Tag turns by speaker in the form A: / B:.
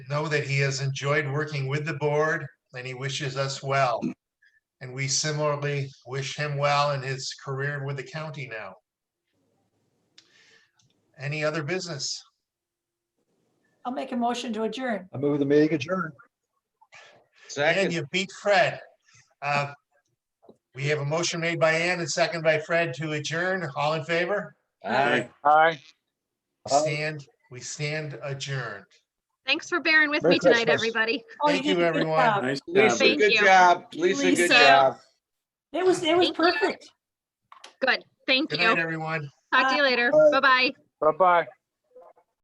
A: know that he has enjoyed working with the board and he wishes us well. And we similarly wish him well in his career with the county now. Any other business?
B: I'll make a motion to adjourn.
C: I move the meeting adjourned.
A: And
D: Second,
A: you beat Fred. Uh, We have a motion made by Ann and second by Fred to adjourn. All in favor?
D: aye.
E: Aye.
C: Aye.
A: Stand, we stand adjourned.
F: Thanks for bearing with
C: Merry
F: me tonight,
C: Christmas.
F: everybody.
B: Oh,
A: Thank
B: did
A: you,
B: a good
A: everyone.
B: job.
G: Nice job.
D: Lisa,
F: Thank
D: good
F: you.
D: job. Lisa, good
F: Lisa.
D: job.
B: It was, it was
F: Thank you.
B: perfect.
F: Good. Thank
A: Good
F: you.
A: night, everyone.
F: Talk to you later.
C: Bye.
F: Bye bye.
E: Bye-bye.